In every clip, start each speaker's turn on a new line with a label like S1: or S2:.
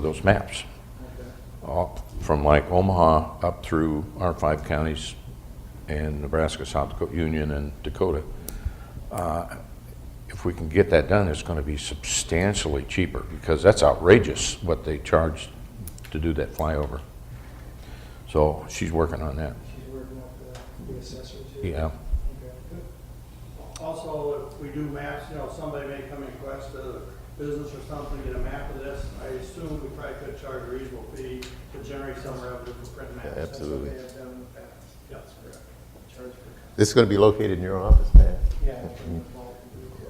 S1: those maps. All from like Omaha up through our five counties and Nebraska, South Dakota, Union and Dakota. Uh, If we can get that done, it's going to be substantially cheaper because that's outrageous what they charge to do that flyover. So she's working on that.
S2: She's working up the, the assessor too?
S1: Yeah.
S2: Okay, good.
S3: Also, if we do maps, you know, somebody may come and request a business or something, get a map of this, I assume we probably could charge a reasonable fee to generate some revenue for print maps.
S4: Yeah, absolutely.
S2: They have done in the past,
S3: Yeah, That's correct.
S2: charge for.
S4: This is going to be located in your office, Pat?
S2: Yeah. from the vault.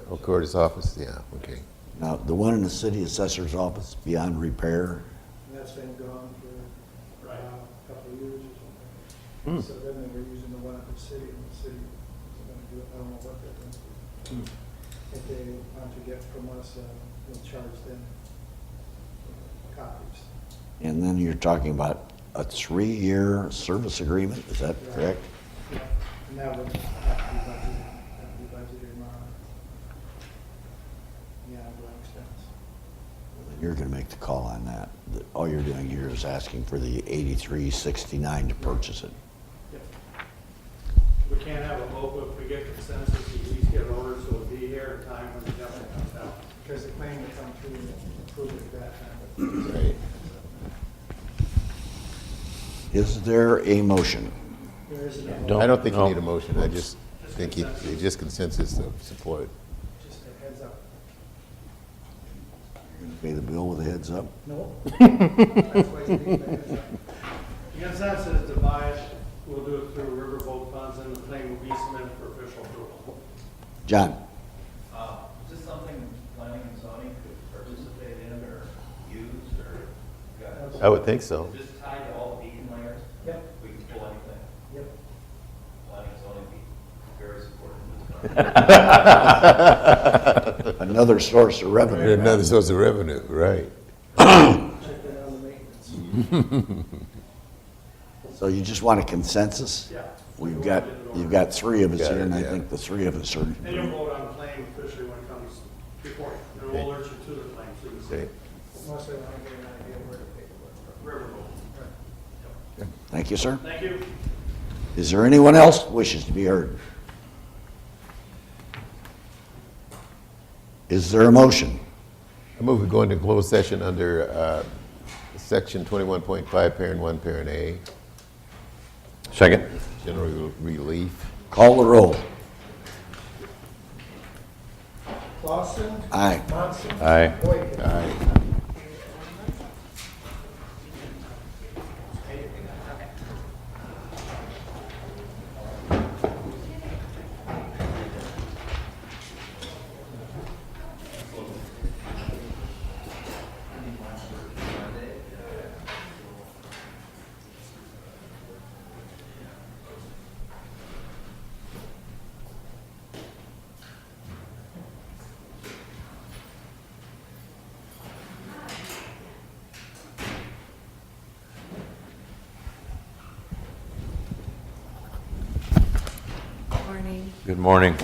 S4: Or Oh, Curtis' office? Yeah, okay.
S5: Now, the one in the city assessor's office beyond repair,
S2: And that's been gone for uh,
S3: Right.
S2: a couple of years or something. So then they were using the one at the city, and the city was gonna do it, I don't know what they're gonna do. If they want to get from us, uh, we'll charge them copies.
S5: and then you're talking about a three-year service agreement, is that correct?
S2: Yeah, And that would have to be budgeted, have to be budgeted in our, yeah, but expense.
S5: You're gonna make the call on that. The- All you're doing here is asking for the eighty-three sixty-nine to purchase it.
S3: Yep. We can't have a local, if we get consensus, we at least get an order, so it'll be here in time when the government comes out.
S2: Because the claim would come through and approve it at that time.
S4: Right.
S5: Is there a motion?
S2: There is a,
S1: Don't-
S4: I don't think you
S1: no.
S4: need a motion. I just think it- it's just consensus of support.
S2: just a heads up.
S5: You're gonna Pay the bill with a heads up?
S2: No. That's why you need a heads up.
S3: The consensus is to buy it, we'll do it through riverboat funds, and the claim will be submitted for official approval.
S5: John?
S6: Uh, Is this something planning and zoning could participate in or use or? guys?
S4: I would think so.
S6: Is this tied to all beacon layers?
S2: Yep,
S6: We can pull anything,
S2: yep.
S6: planning and zoning be very supportive of this. concept.
S5: Another source of revenue.
S4: Another source of revenue, right.
S2: Check that out on the maintenance.
S5: So you just want a consensus?
S3: Yeah.
S5: We've got, you've got three of us
S4: Got
S5: here,
S4: it,
S5: and I
S4: yeah.
S5: think the three of us are.
S3: And you'll vote on the claim officially when it comes before, you. and we'll alert you to the claim, so you can
S4: Okay.
S3: see
S2: Mostly I want to get an idea where to pick it
S3: riverboat.
S2: up.
S5: Thank you, sir.
S3: Thank you.
S5: Is there anyone else wishes to be heard? Is there a motion?
S4: I move we go into closed session under uh, Section 21.5, Parent 1, Parent A,
S1: Second?
S4: general relief.
S5: Call the roll.
S2: Clausen,
S5: Aye.
S2: Munson,
S1: Aye.
S2: Boyd.
S7: Morning.
S1: Good morning.